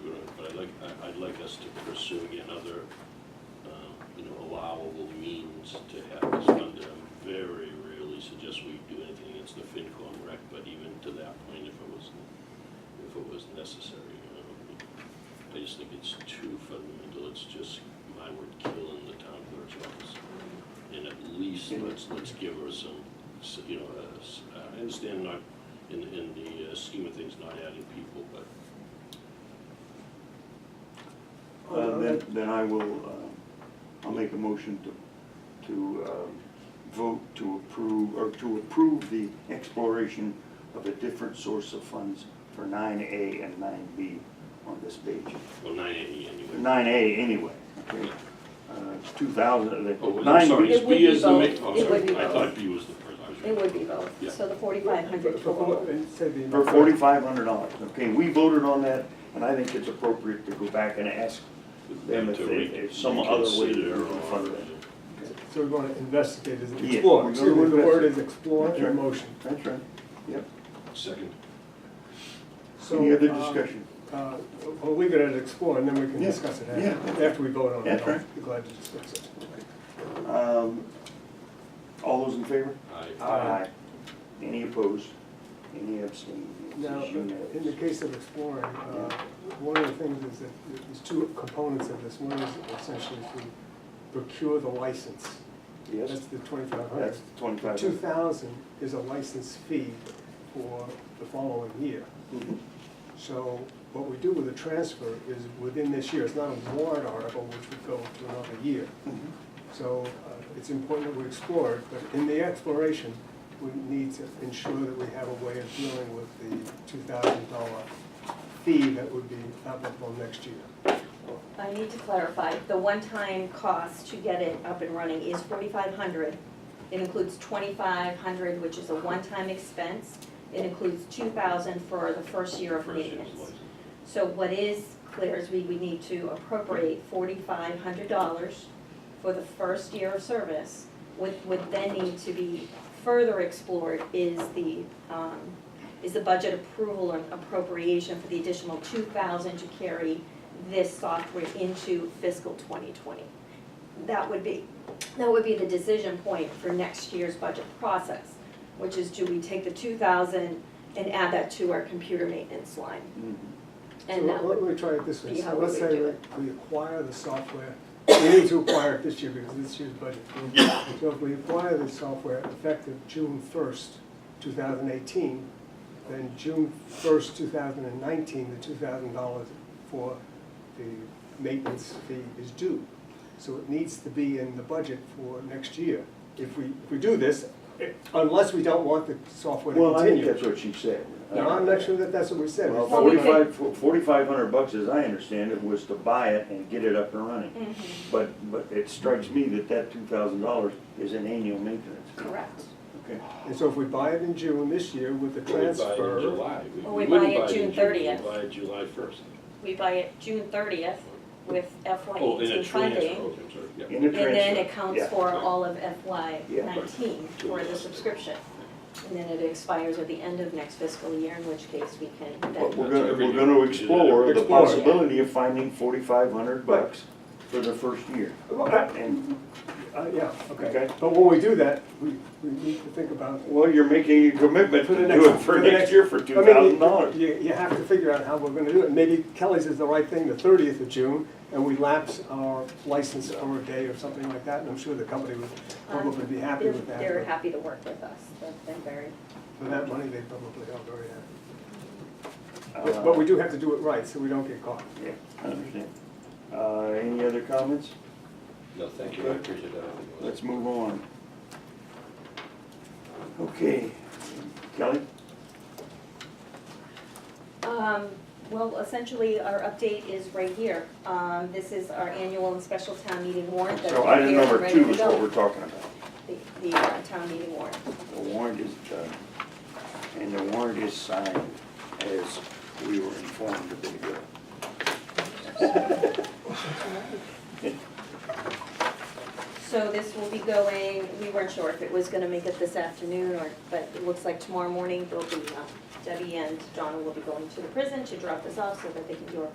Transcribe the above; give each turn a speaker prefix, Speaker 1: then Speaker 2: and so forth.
Speaker 1: us to pursue again other, um, you know, allowable means to have this fund. I very rarely suggest we do anything against the FinCom rec, but even to that point, if it was, if it was necessary, you know. I just think it's too fundamental, it's just, my word, killing the town clerk's office. And at least let's, let's give her some, s- you know, uh, s- I understand not, in, in the uh, scheme of things, not adding people, but
Speaker 2: Uh, Then, then I will, um, I'll make a motion to, to um, vote to approve, or to approve the exploration of a different source of funds for nine A and nine B on this page.
Speaker 1: Well, nine eighty anyway.
Speaker 2: Nine A anyway, okay? Uh, It's two thousand, uh,
Speaker 1: Oh, well,
Speaker 2: nine
Speaker 1: I'm sorry,
Speaker 2: B.
Speaker 1: it's
Speaker 3: It would
Speaker 1: B is
Speaker 3: be
Speaker 1: the ma-
Speaker 3: both.
Speaker 1: oh,
Speaker 3: It
Speaker 1: sorry,
Speaker 3: would be
Speaker 1: I
Speaker 3: both.
Speaker 1: thought B was the first, I was
Speaker 3: It
Speaker 1: right.
Speaker 3: would be
Speaker 1: Yeah.
Speaker 3: both, so the forty-five hundred total.
Speaker 2: For forty-five hundred dollars, okay? We voted on that, and I think it's appropriate to go back and ask them if
Speaker 1: To
Speaker 2: they,
Speaker 1: re-
Speaker 2: if some other way
Speaker 1: reconsider
Speaker 2: to
Speaker 1: or-
Speaker 2: fund that.
Speaker 4: So we're going to investigate, is it
Speaker 2: Yeah, we're
Speaker 4: explore?
Speaker 2: gonna
Speaker 4: So the word
Speaker 2: invest-
Speaker 4: is explore
Speaker 2: That's right.
Speaker 4: in motion.
Speaker 2: That's right, yep.
Speaker 1: Second,
Speaker 4: So,
Speaker 2: Any other
Speaker 4: um,
Speaker 2: discussion?
Speaker 4: uh, We'll leave it at explore and then we can
Speaker 2: Yeah,
Speaker 4: discuss it
Speaker 2: yeah.
Speaker 4: after, after we vote on it.
Speaker 2: That's
Speaker 4: I'll
Speaker 2: right.
Speaker 4: be glad to discuss it.
Speaker 2: Um, All those in favor?
Speaker 1: I,
Speaker 4: Uh, Aye.
Speaker 2: Any opposed? Any abstained?
Speaker 4: Now,
Speaker 2: It's unanimous.
Speaker 4: in the case of exploring, uh, one of the things is that there's two components of this. One is essentially to procure the license. That's
Speaker 2: Yes,
Speaker 4: the twenty-five hundred.
Speaker 2: that's twenty-five.
Speaker 4: Two thousand is a license fee for the following year.
Speaker 2: Mhm.
Speaker 4: So what we do with the transfer is within this year, it's not a warrant article which would go to another year.
Speaker 2: Mhm.
Speaker 4: So uh, it's important that we explore it, but in the exploration, we need to ensure that we have a way of dealing with the two thousand dollar fee that would be applicable next year.
Speaker 3: I need to clarify, the one-time cost to get it up and running is forty-five hundred. It includes twenty-five hundred, which is a one-time expense. It includes two thousand for the first year of
Speaker 1: first year's
Speaker 3: maintenance.
Speaker 1: license.
Speaker 3: So what is clear is we, we need to appropriate forty-five hundred dollars for the first year of service. What would then need to be further explored is the, um, is the budget approval and appropriation for the additional two thousand to carry this software into fiscal twenty twenty. That would be, that would be the decision point for next year's budget process, which is do we take the two thousand and add that to our computer maintenance line?
Speaker 2: Mhm.
Speaker 3: And that
Speaker 4: So let
Speaker 3: would,
Speaker 4: me try it this way.
Speaker 3: be how
Speaker 4: So let's
Speaker 3: we would
Speaker 4: say
Speaker 3: do
Speaker 4: that
Speaker 3: it.
Speaker 4: we acquire the software, we need to acquire it this year because this year's budget. So if we acquire the software effective June first, two thousand eighteen, then June first, two thousand and nineteen, the two thousand dollars for the maintenance fee is due. So it needs to be in the budget for next year. If we, if we do this, unless we don't want the software to
Speaker 2: Well, I think
Speaker 4: continue.
Speaker 2: that's what she said.
Speaker 4: Now, I'm not sure that that's what we said.
Speaker 2: Well,
Speaker 3: Well, we could-
Speaker 2: forty-five, forty-five hundred bucks, as I understand it, was to buy it and get it up and running.
Speaker 3: Mhm,
Speaker 2: But, but it strikes me that that two thousand dollars is an annual maintenance.
Speaker 3: correct.
Speaker 2: Okay.
Speaker 4: And so if we buy it in June this year with the
Speaker 1: We would buy it in
Speaker 4: transfer,
Speaker 1: July. We-
Speaker 3: Well,
Speaker 1: we
Speaker 3: we
Speaker 1: wouldn't
Speaker 3: buy it June
Speaker 1: in
Speaker 3: 30th.
Speaker 1: We buy it July first.
Speaker 3: We buy it June thirtieth with FY
Speaker 1: Oh, in a
Speaker 3: eighteen
Speaker 1: transfer,
Speaker 3: funding.
Speaker 1: oh, I'm sorry, yeah.
Speaker 2: In the
Speaker 3: And then
Speaker 2: transfer.
Speaker 3: it counts
Speaker 2: Yeah.
Speaker 3: for all of FY
Speaker 2: Yeah, right.
Speaker 3: nineteen for the subscription. And then it expires at the end of next fiscal year, in which case we can
Speaker 2: But
Speaker 3: then,
Speaker 2: we're gonna,
Speaker 1: Every
Speaker 2: we're
Speaker 1: year.
Speaker 2: gonna explore the
Speaker 4: Explore.
Speaker 2: possibility of finding forty-five hundred bucks for the first year.
Speaker 4: Well, I-
Speaker 2: And,
Speaker 4: uh, yeah, okay.
Speaker 2: Okay.
Speaker 4: But when we do that, we, we need to think about.
Speaker 2: well, you're making a commitment
Speaker 4: For the
Speaker 2: to
Speaker 4: next-
Speaker 2: do it
Speaker 4: for
Speaker 2: for
Speaker 4: the next-
Speaker 2: next year for
Speaker 4: I
Speaker 2: two
Speaker 4: mean,
Speaker 2: thousand dollars.
Speaker 4: You, you have to figure out how we're gonna do it. Maybe Kelly's is the right thing, the thirtieth of June, and we lapse our license for a day or something like that, and I'm sure the company would probably be happy
Speaker 3: um, they're,
Speaker 4: with that.
Speaker 3: they're
Speaker 4: but
Speaker 3: happy to work with us, They've been very.
Speaker 4: For that money, they probably are very happy.
Speaker 2: Uh,
Speaker 4: But, but we do have to do it right, so we don't get caught.
Speaker 2: Yeah, I understand. Uh, any other comments?
Speaker 1: No, thank you, I appreciate that. I think it was-
Speaker 2: Let's move on. Okay, Kelly?
Speaker 3: Um, well, essentially, our update is right here. Um, this is our annual and special town meeting warrant that's
Speaker 2: So item
Speaker 3: here and
Speaker 2: number
Speaker 3: ready
Speaker 2: two
Speaker 3: to
Speaker 2: is
Speaker 3: go.
Speaker 2: what we're talking about.
Speaker 3: The, the uh, town meeting warrant.
Speaker 2: The warrant is done, and the warrant is signed as we were informed a bit ago.
Speaker 3: So this will be going, we weren't sure if it was gonna make it this afternoon or, but it looks like um, tomorrow morning, there'll be, uh, Debbie and Donna will be going to the prison to drop this off so that they can do a